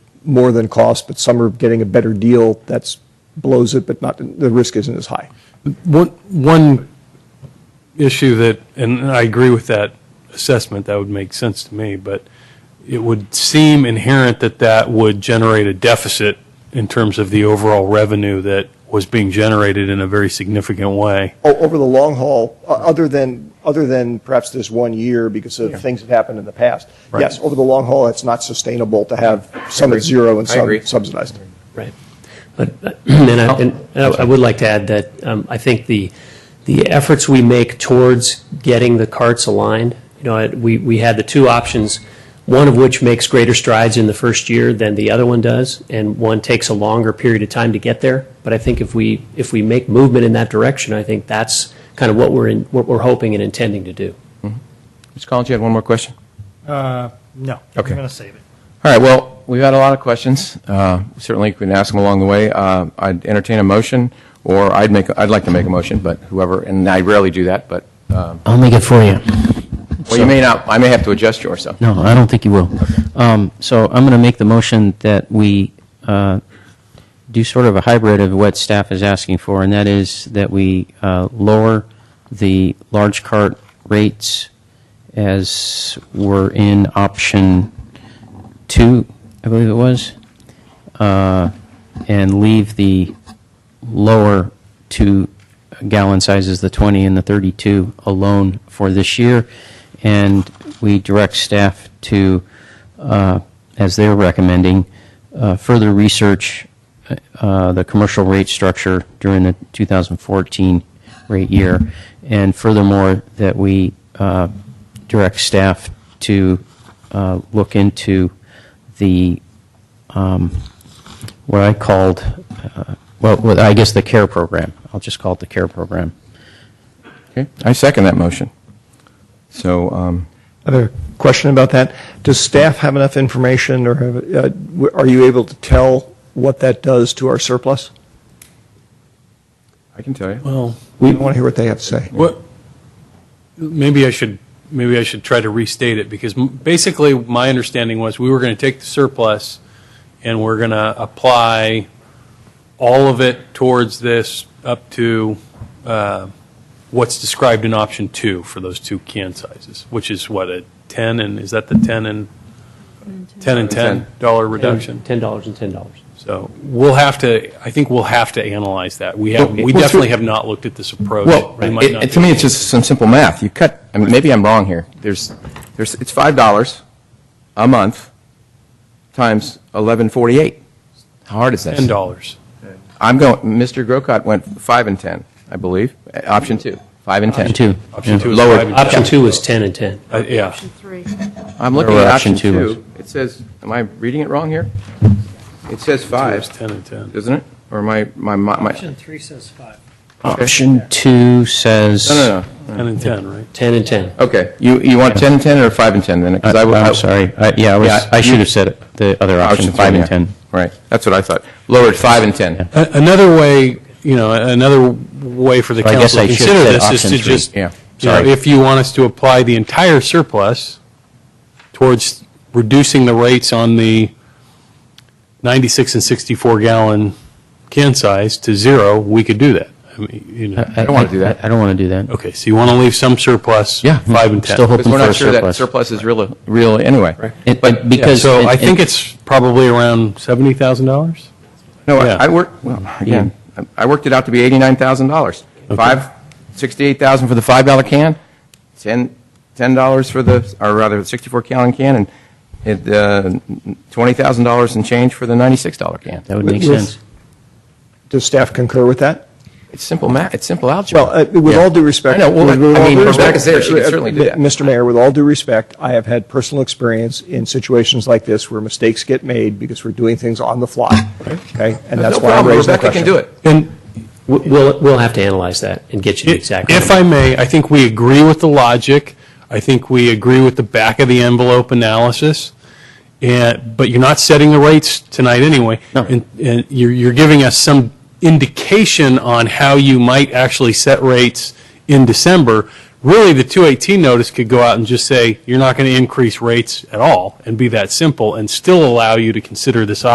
more than cost, but some are getting a better deal that's blows it, but not, the risk isn't as high. One, one issue that, and I agree with that assessment, that would make sense to me, but it would seem inherent that that would generate a deficit in terms of the overall revenue that was being generated in a very significant way. O- Oh, Over the long haul, o- other than, other than perhaps this one year because of things that happened in the past. Right. Yes, over the long haul, it's not sustainable to have some at zero and I some agree. subsidized. Right. But, uh, and I, and I I would like to add that um, I think the, the efforts we make towards getting the carts aligned, you know, it- we, we had the two options, one of which makes greater strides in the first year than the other one does, and one takes a longer period of time to get there. But I think if we, if we make movement in that direction, I think that's kind of what we're, in- what we're hoping and intending to do. Mr. Collins, you had one more question? Uh, No. Okay. I'm going to save it. All right, well, we've had a lot of questions. Uh, Certainly, we can ask them along the way. Uh, I'd entertain a motion, or I'd make, I'd like to make a motion, but whoever, and I rarely do that, but, I'll make it for you. well, you may not, I may have to adjust yours, so. No, I don't think you will. Um, So I'm going to make the motion that we uh, do sort of a hybrid of what staff is asking for, and that is that we uh, lower the large cart rates as were in option two, I believe it was, uh, and leave the lower two gallon sizes, the 20 and the 32, alone for this year. And we direct staff to, uh, as they're recommending, uh, further research uh, the commercial rate structure during the 2014 rate year. And furthermore, that we uh, direct staff to uh, look into the um, what I called, uh, well, what I guess the CARE program. I'll just call it the CARE program. Okay, I second that motion. So, um, Another question about that. Does staff have enough information or have, uh, w- are you able to tell what that does to our surplus? I can tell you. Well, We want to hear what they have to say. What, maybe I should, maybe I should try to restate it, because m- basically, my understanding was we were going to take the surplus and we're going to apply all of it towards this up to uh, what's described in option two for those two can sizes, which is what, a 10 and, is that the 10 and, 10 and 10 dollar reduction? $10 and $10. So we'll have to, I think we'll have to analyze that. We have, Well, we well, through- definitely have not looked at this approach. Well, We might it- not it- to be me, able it's just some simple math. You cut, I mean, maybe I'm wrong here. There's, there's, it's $5 a month times 1148. How hard is that? Ten dollars. I'm going, Mr. Grocott went five and 10, I believe, Uh, option two, five and 10. Option two. Option two is Lower- five and Option ten. two is 10 and 10. Uh, Yeah, Three. I'm looking Or at option option two is- two. It says, am I reading it wrong here? It says five, five, ten and ten. doesn't it? Or my, my, my, my- no, Option three says five. Option two says. uh, no, no. Ten and ten, right? 10 and 10. Okay, you, you want 10 and 10 or five and 10 then? 'Cause I I- w- I- I'm sorry. I- Yeah, I was- Yeah, I you- should have said it, the other option, Option five three, and yeah. 10. Right, that's what I thought. Lowered five and 10. Another way, you know, another way for the Or I guess council to I should consider have said this is to option three. just, you Yeah, know, sorry. if you want us to apply the entire surplus towards reducing the rates on the 96 and 64 gallon can size to zero, we could do that. I mean, you Uh, know, don't wanna do that. I don't want to do that. okay, so you want to leave some surplus? Yeah, Five and 10. still Because we're Hoping not for sure a that surplus. surplus is real, real anyway. It- But, it- because- So I it- think it- it's probably around $70,000? No, Yeah. I I worked, well, again, I I worked it out to be $89,000. Five, 68,000 for the $5 can, 10, $10 for the, or rather, the 64 gallon can, and it, uh, $20,000 and change for the $96 can. That would make With- sense. Does staff concur with that? It's simple math, it's simple algebra. Well, uh, with all due respect. I know, well, with- with I all mean, due Rebecca's respect- there, she can certainly do that. Mr. Mayor, with all due respect, I have had personal experience in situations like this where mistakes get made because we're doing things on the fly, okay? And that's No why I'm problem, raising the Rebecca question. can do it. And We- We'll, we'll have to analyze that and get you the exact. If I may, I think we agree with the logic. I think we agree with the back of the envelope analysis. And, but you're not setting the rates tonight anyway. No. And, and you're, you're giving us some indication on how you might actually set rates in December. Really, the 218 notice could go out and just say, you're not going to increase rates at all and be that simple and still allow you to consider this